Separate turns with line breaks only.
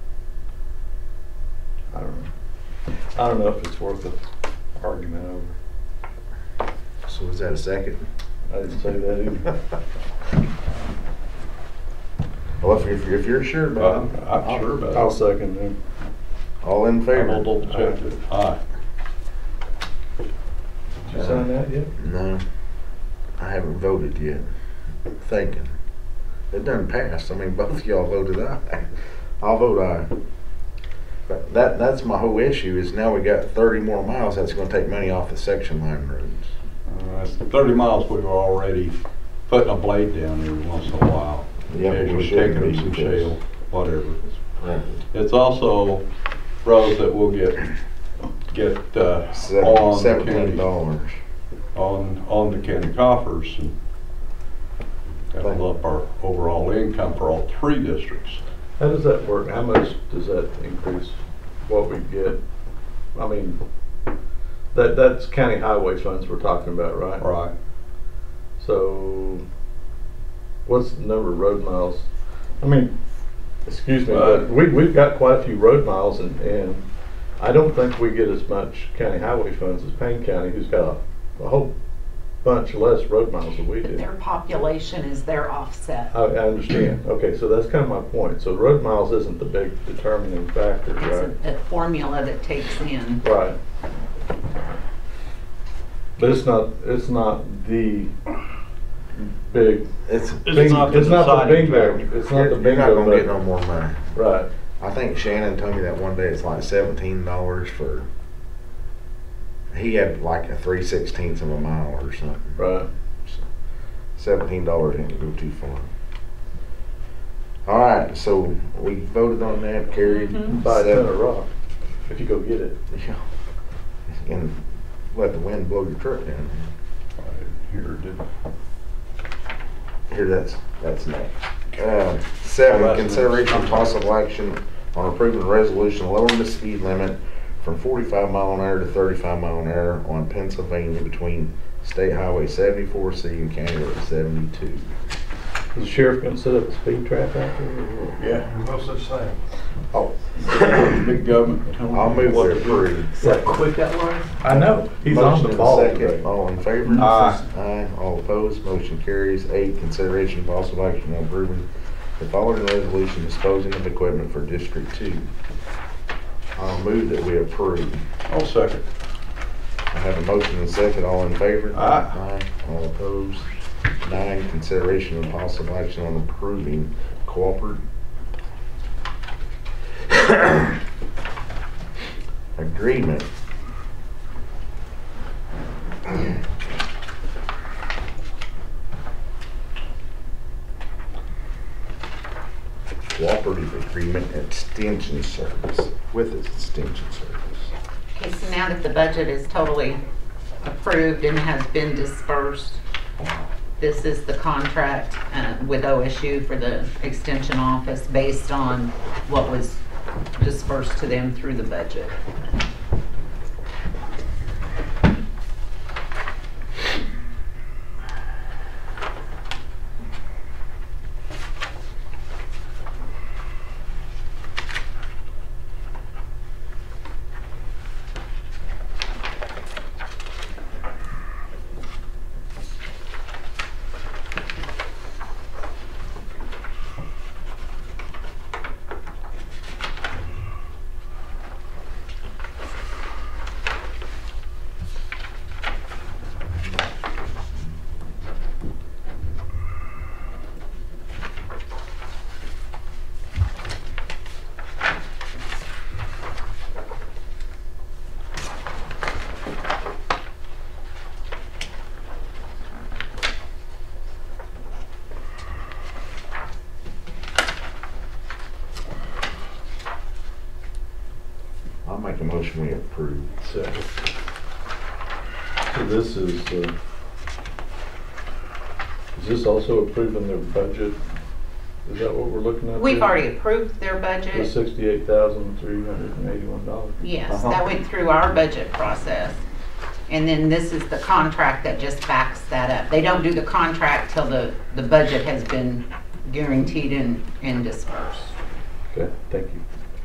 I don't know. I don't know if it's worth an argument over.
So was that a second?
I didn't say that either.
Well, if you're, if you're sure about
I'm-
it,
Uh, I'm sure about it.
I'll second him.
all in
I
favor?
will double check it. Aye.
Did you sign that yet?
No, I haven't voted yet. Thinking. It doesn't pass. I mean, both y'all voted aye. I'll vote aye. But that, that's my whole issue is now we got thirty more miles. That's gonna take money off the section line roads.
Uh, that's Thirty miles, we were already putting a blade down every once in a while.
Yeah, but we
Occasionally
shouldn't
Taking
be
some
because-
shale, whatever.
Right.
It's also roads that will get, get uh,
Seven-
on the
Seventeen
county,
dollars.
on, on the county coffers. and That'll up our overall income for all three districts.
How does that work? How much does that increase what we get? I mean, that, that's county highway funds we're talking about, right?
Right.
So, what's the number of road miles? I mean, excuse me,
Uh,
but we, we've got quite a few road miles and, and I don't think we get as much county highway funds as Payne County, who's got a, a whole bunch less road miles than we
But
do.
Their population is their offset.
I, I understand. Okay, so that's kind of my point. So road miles isn't the big determining factor, right?
It's a- a formula that takes in.
Right. But it's not, it's not the big
It's,
Bing- It's not the bingo, it's not the
you're you're not
bingo,
gonna get no
but,
more money.
right,
I think Shannon told me that one day it's like seventeen dollars for. He had like a three sixteenths of a mile or something.
right.
Seventeen dollars didn't go too far. All right, so we voted on that, carried.
Mhm.
Buy a ton of
Seven-
rock, if you go get it.
Yeah. And let the wind blow your truck down.
I Here, did,
Here, that's, that's next. Uh, Seven,
Alright.
consideration of possible action on approving a resolution lowering the speed limit from forty-five mile an hour to thirty-five mile an hour on Pennsylvania between State Highway seventy-four C and County Road seventy-two.
Is the sheriff gonna set up a speed trap out there?
yeah,
No such thing.
Oh,
big government. telling
I'll
you
move
what
to
to do.
approve.
quick that was? I know, he's on
Motion
the
and
ball
second.
today. Mm-hmm.
All in favor?
Aye.
Aye. All opposed, motion carries. Eight, consideration of possible action on approving the following resolution disposing of equipment for District Two. I'll move that we approve.
I'll second.
I have a motion and second, all in favor?
Aye.
Aye. All opposed? Nine, consideration of possible action on approving cooperative agreement. Cooperative agreement extension service, with its extension service.
Okay, so now that the budget is totally approved and has been dispersed, this is the contract uh, with OSU for the extension office based on what was dispersed to them through the budget.
I'll make a motion we approve.
So so this is, uh, is this also approving their budget? Is that what we're looking at?
We've
there?
already approved their
The
budget.
sixty-eight thousand, three hundred and eighty-one dollars.
Yes, that went through our budget process. And then this is the contract that just backs that up. They don't do the contract till the, the budget has been guaranteed and, and dispersed.
Okay, thank you.